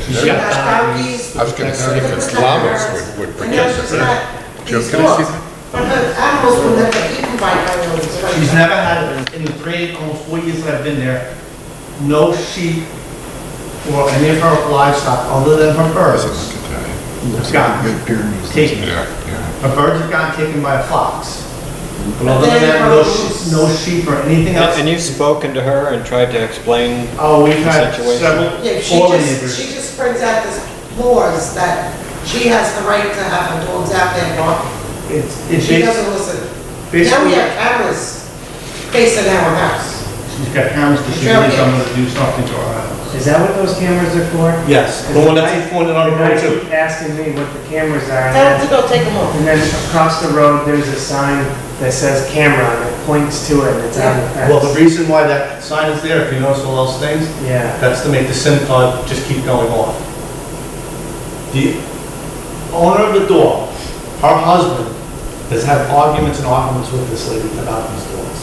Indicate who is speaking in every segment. Speaker 1: She's
Speaker 2: Yeah.
Speaker 3: there.
Speaker 1: got bounties.
Speaker 3: I was gonna see if llamas would, would
Speaker 1: And now
Speaker 3: protect
Speaker 1: she's
Speaker 3: her.
Speaker 1: got
Speaker 3: Joe,
Speaker 1: these
Speaker 3: can I see
Speaker 1: dogs. But her animals were never eaten by animals.
Speaker 2: She's never had any prey, almost four years that I've been there, no sheep or any of her livestock other than her birds. It's gone, taken.
Speaker 3: Yeah, yeah.
Speaker 2: Her birds are gone, taken by fox. But other than that, no sheep, no sheep or anything else.
Speaker 4: And you've spoken to her and tried to explain,
Speaker 2: Oh, we've had
Speaker 4: Situation.
Speaker 2: several,
Speaker 1: Yeah, she
Speaker 2: four
Speaker 1: just, she
Speaker 2: neighbors.
Speaker 1: just brings out this laws that she has the right to have her dogs out there barking.
Speaker 2: It's, it's
Speaker 1: She
Speaker 2: basically,
Speaker 1: doesn't listen. Now we
Speaker 2: basically,
Speaker 1: have cameras facing our house.
Speaker 2: she's got cameras, because she
Speaker 1: Joe,
Speaker 2: needs
Speaker 1: yeah.
Speaker 2: someone to do something to her house.
Speaker 5: Is that what those cameras are for?
Speaker 2: Yes, the one that's pointed on the
Speaker 5: Because
Speaker 2: road
Speaker 5: I
Speaker 2: too.
Speaker 5: keep asking me what the cameras are, and
Speaker 1: Tell them
Speaker 5: then-
Speaker 1: to go take them off.
Speaker 5: and then across the road, there's a sign that says camera, and it points to it, and it's on the
Speaker 2: Well, the
Speaker 5: fence.
Speaker 2: reason why that sign is there, if you notice all those things,
Speaker 5: Yeah,
Speaker 2: That's to make the SIM card just keep going off. The owner of the dog, her husband, has had arguments and arguments with this lady about these dogs.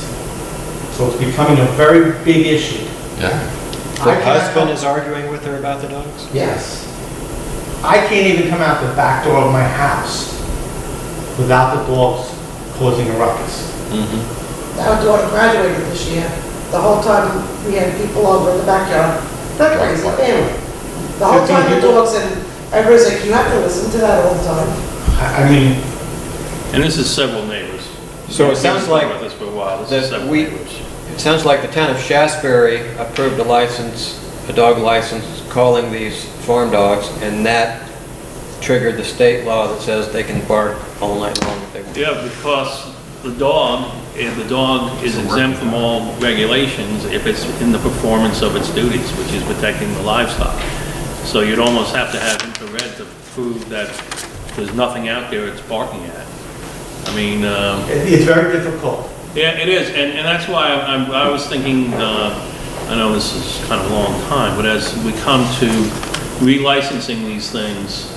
Speaker 2: So it's becoming a very big issue.
Speaker 3: Yeah,
Speaker 2: I
Speaker 4: her
Speaker 2: cannot-
Speaker 4: husband is arguing with her about the dogs?
Speaker 2: Yes. I can't even come out the back door of my house without the dogs causing a ruckus.
Speaker 1: Our daughter graduated this year. The whole time we had people over in the backyard, that crazy family. The whole
Speaker 2: Fifteen
Speaker 1: time the
Speaker 2: people?
Speaker 1: dogs and everybody's like, you have to listen to that all the time.
Speaker 2: I I mean,
Speaker 6: And this is several neighbors.
Speaker 4: So it sounds like
Speaker 6: We've been with this for a while, this is
Speaker 4: that
Speaker 6: several
Speaker 4: we-
Speaker 6: neighbors.
Speaker 4: It sounds like the town of Shasberry approved a license, a dog license, calling these farm dogs, and that triggered the state law that says they can bark all night long if they want.
Speaker 6: Yeah, because the dog, if the dog is exempt from all regulations if it's in the performance of its duties, which is protecting the livestock. So you'd almost have to have infrared to prove that there's nothing out there it's barking at. I mean, um,
Speaker 2: it- it's very difficult.
Speaker 6: Yeah, it is, and, and that's why I'm, I'm- I was thinking, uh, I know this is kind of a long time, but as we come to relicensing these things,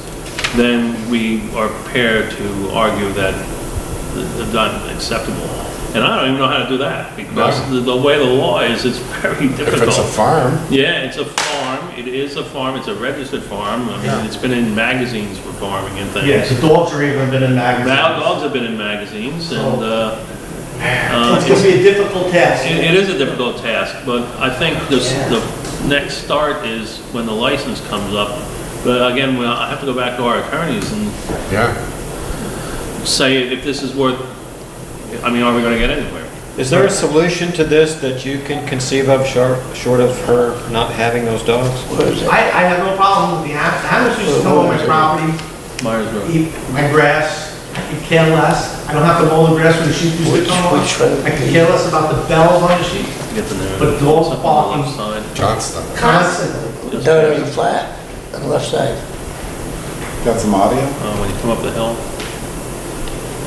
Speaker 6: then we are prepared to argue that they're not acceptable. And I don't even know how to do that, because the, the way the law is, it's very
Speaker 3: if it's a
Speaker 6: difficult.
Speaker 3: farm,
Speaker 6: Yeah, it's a farm, it is a farm, it's a registered farm, I mean, it's been in magazines for farming and things.
Speaker 2: Yeah, the dogs are even been in magazines.
Speaker 6: Now, dogs have been in magazines,
Speaker 3: Oh.
Speaker 6: and, uh, uh,
Speaker 2: It's gonna be a difficult task.
Speaker 6: It, it is a difficult task, but I think this, the next start is when the license comes up. But again, well, I have to go back to our attorneys and
Speaker 3: yeah.
Speaker 6: say if this is worth, I mean, are we gonna get anywhere?
Speaker 4: Is there a solution to this that you can conceive of, short, short of her not having those dogs?
Speaker 2: I, I have no problem with the animals, animals used to come on my property,
Speaker 6: Myers Road.
Speaker 2: eat my grass, I could care less, I don't have to mow the grass when the sheep used to come on. I could care less about the bells on the sheep,
Speaker 6: Get the narrative.
Speaker 2: But dogs
Speaker 6: Up on
Speaker 2: barking.
Speaker 6: the left side.
Speaker 3: Johnston.
Speaker 2: constantly.
Speaker 6: Just,
Speaker 7: Down on
Speaker 6: uh,
Speaker 7: the flat, on the left side.
Speaker 8: Got some audio?
Speaker 6: Uh, When you come up the hill.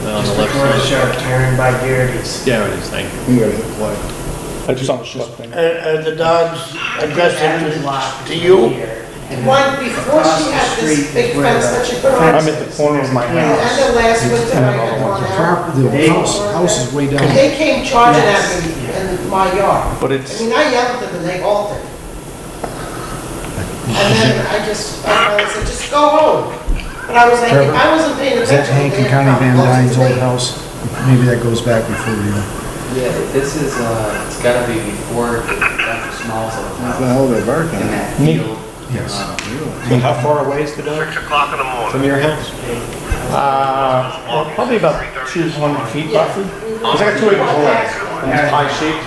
Speaker 6: down on the
Speaker 5: just
Speaker 6: left
Speaker 5: before the
Speaker 6: side.
Speaker 5: sharp turn by Garrity's.
Speaker 6: There it is, thank you.
Speaker 8: You gotta hit play.
Speaker 7: Are, are the dogs addressing
Speaker 5: Every lot
Speaker 7: to
Speaker 5: is
Speaker 7: you?
Speaker 5: here, and
Speaker 1: One, before she had this big fence that she put on,
Speaker 5: I'm
Speaker 1: and
Speaker 5: at the corner of my
Speaker 1: then
Speaker 5: house.
Speaker 1: last winter I had one out.
Speaker 5: They-
Speaker 1: house is way down. They came charging at me in my yard.
Speaker 9: But
Speaker 1: I
Speaker 9: it's,
Speaker 1: mean, I yelled at them and they altered. And then I just, I I said, just go home. But I was like, if I wasn't paying
Speaker 10: Is that
Speaker 1: attention.
Speaker 10: Hank
Speaker 1: they
Speaker 10: and
Speaker 1: had
Speaker 10: Connie
Speaker 1: come
Speaker 10: Van
Speaker 1: closer to
Speaker 10: Dyne's old
Speaker 1: me.
Speaker 10: house? Maybe that goes back before you.
Speaker 11: Yeah, this is, uh, it's gotta be before Dr. Small's old
Speaker 8: What the
Speaker 11: house
Speaker 8: hell, they're barking
Speaker 11: in that
Speaker 8: at?
Speaker 11: field.
Speaker 10: Yes.
Speaker 11: Uh,
Speaker 4: How far away is the dog? Six o'clock in the morning. From your house?
Speaker 9: uh, probably about 200 feet roughly. Because I got two acres of land, and it's high shaped.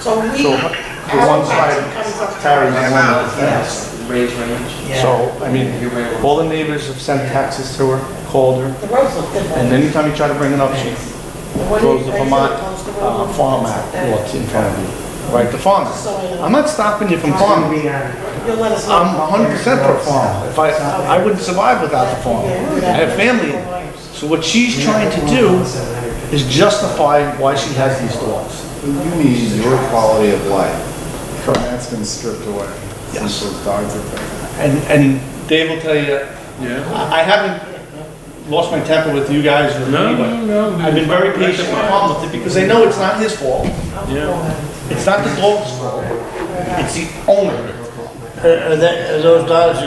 Speaker 1: So we,
Speaker 9: So,
Speaker 1: our
Speaker 9: one
Speaker 1: property
Speaker 9: side
Speaker 1: comes up.
Speaker 9: Terry, my one
Speaker 11: Yes, Ray's Ranch.
Speaker 9: So, I mean,
Speaker 11: Everywhere where-
Speaker 9: all the neighbors have sent taxes to her, called her,
Speaker 1: The roads look different.
Speaker 9: and anytime you try to bring it up, she throws the Vermont uh, Farm Act law in front of you, right, the farmer. I'm not stopping you from
Speaker 5: It's gonna
Speaker 9: farming.
Speaker 5: be on.
Speaker 1: You'll let us know.
Speaker 9: I'm 100% pro farmer. If I, I wouldn't survive without the farm. I have family. So what she's trying to do is justify why she has these dogs.
Speaker 8: You need your quality of life. And that's been stripped away since
Speaker 9: Yes.
Speaker 8: those dogs are there.
Speaker 9: And, and Dave will tell you,
Speaker 6: Yeah.
Speaker 9: I I haven't lost my temper with you guys or
Speaker 6: No,
Speaker 9: anybody.
Speaker 6: no, no.
Speaker 9: I've been very patient with Tom with it because I know it's not his fault.
Speaker 6: Yeah.
Speaker 9: It's not the dog's fault. It's the owner.
Speaker 7: Are, are that, are those dogs